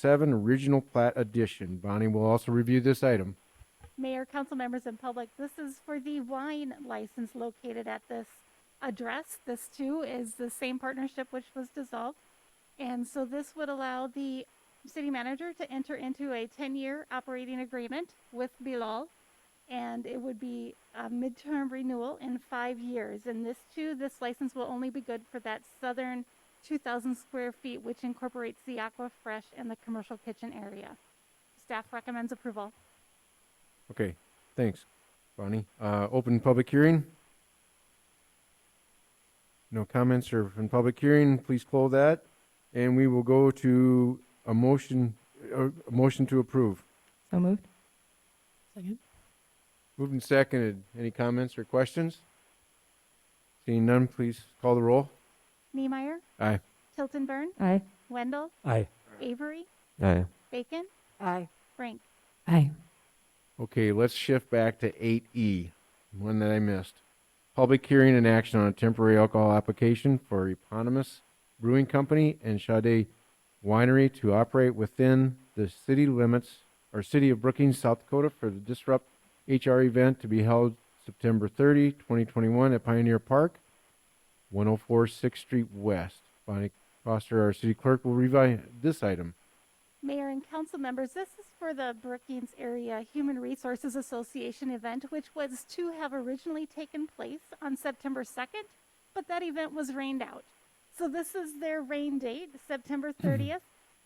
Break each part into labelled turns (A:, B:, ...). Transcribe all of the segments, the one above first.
A: seven original plat addition. Bonnie will also review this item.
B: Mayor, council members, and public, this is for the wine license located at this address. This too is the same partnership which was dissolved. And so this would allow the city manager to enter into a 10-year operating agreement with Bilal. And it would be a midterm renewal in five years. And this too, this license will only be good for that southern 2,000 square feet, which incorporates the Aqua Fresh and the commercial kitchen area. Staff recommends approval.
A: Okay, thanks, Bonnie. Uh, open public hearing. No comments or from public hearing, please close that. And we will go to a motion, uh, a motion to approve.
C: So moved.
D: Second.
A: Moved and seconded. Any comments or questions? Seeing none, please call the roll.
B: Niemeyer,
A: Aye.
B: Tilton Burn,
C: Aye.
B: Wendell,
E: Aye.
B: Avery,
F: Aye.
B: Bacon,
D: Aye.
B: Frank.
C: Aye.
A: Okay, let's shift back to eight E, one that I missed. Public hearing and action on a temporary alcohol application for eponymous brewing company and Sade winery to operate within the city limits or city of Brookings, South Dakota for the Disrupt HR event to be held September 30, 2021, at Pioneer Park, one oh four Sixth Street West. Bonnie Foster, our city clerk, will review this item.
B: Mayor and council members, this is for the Brookings Area Human Resources Association event, which was to have originally taken place on September 2nd, but that event was rained out. So this is their rain date, September 30th.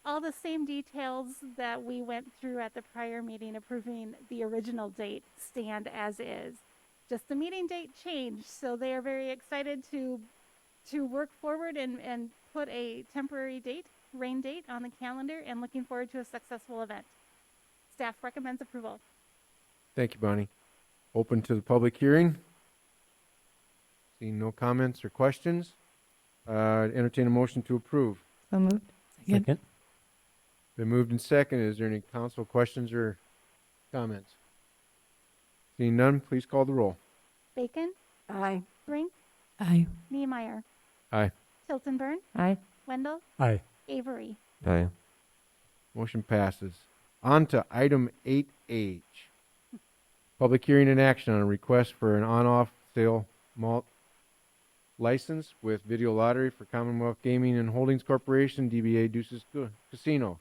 B: All the same details that we went through at the prior meeting approving the original date stand as is. Just the meeting date changed, so they are very excited to to work forward and, and put a temporary date, rain date, on the calendar and looking forward to a successful event. Staff recommends approval.
A: Thank you, Bonnie. Open to the public hearing. Seeing no comments or questions, uh, entertain a motion to approve.
C: So moved.
D: Second.
E: Second.
A: Been moved and seconded. Is there any council questions or comments? Seeing none, please call the roll.
B: Bacon,
D: Aye.
B: Brink,
C: Aye.
B: Niemeyer,
A: Aye.
B: Tilton Burn,
C: Aye.
B: Wendell,
E: Aye.
B: Avery.
F: Aye.
A: Motion passes. On to item eight H. Public hearing and action on a request for an on-off sale malt license with video lottery for Commonwealth Gaming and Holdings Corporation, DBA Deuces Ca- Casino.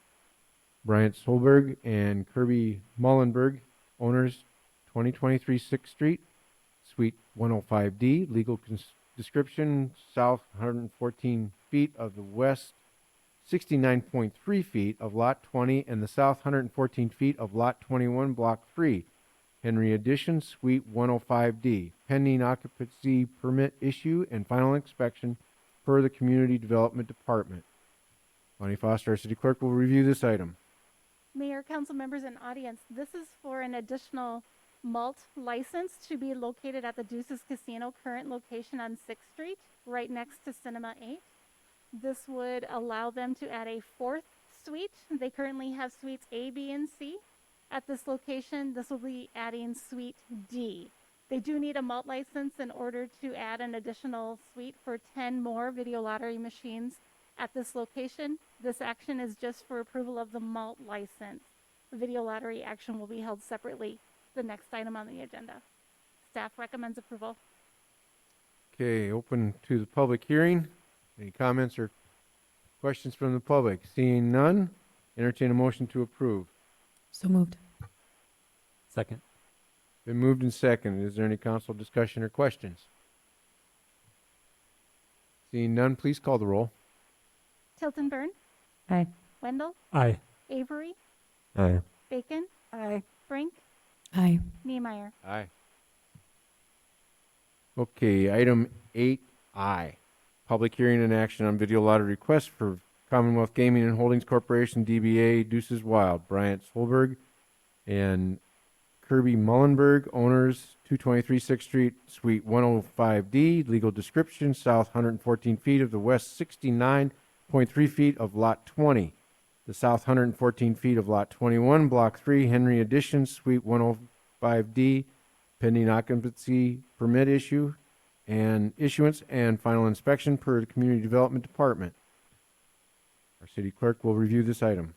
A: Bryant Solberg and Kirby Mullenberg, owners, 2023 Sixth Street, Suite 105D, legal cons- description, south 114 feet of the west 69.3 feet of Lot 20 and the south 114 feet of Lot 21, Block 3, Henry Addition, Suite 105D, pending occupancy permit issue and final inspection per the Community Development Department. Bonnie Foster, our city clerk, will review this item.
B: Mayor, council members, and audience, this is for an additional malt license to be located at the Deuces Casino, current location on Sixth Street, right next to Cinema Eight. This would allow them to add a fourth suite. They currently have suites A, B, and C. At this location, this will be adding suite D. They do need a malt license in order to add an additional suite for 10 more video lottery machines at this location. This action is just for approval of the malt license. The video lottery action will be held separately, the next item on the agenda. Staff recommends approval.
A: Okay, open to the public hearing. Any comments or questions from the public? Seeing none, entertain a motion to approve.
C: So moved.
E: Second.
A: Been moved and seconded. Is there any council discussion or questions? Seeing none, please call the roll.
B: Tilton Burn,
C: Aye.
B: Wendell,
E: Aye.
B: Avery,
F: Aye.
B: Bacon,
D: Aye.
B: Brink,
C: Aye.
B: Niemeyer.
A: Aye. Okay, item eight I, public hearing and action on video lottery request for Commonwealth Gaming and Holdings Corporation DBA Deuces Wild, Bryant Solberg and Kirby Mullenberg, owners, two twenty-three Sixth Street, Suite one oh five D, legal description, south hundred and fourteen feet of the west sixty-nine point three feet of lot twenty. The south hundred and fourteen feet of lot twenty-one, block three, Henry Addition, Suite one oh five D, pending occupancy permit issue and issuance and final inspection per the Community Development Department. Our city clerk will review this item.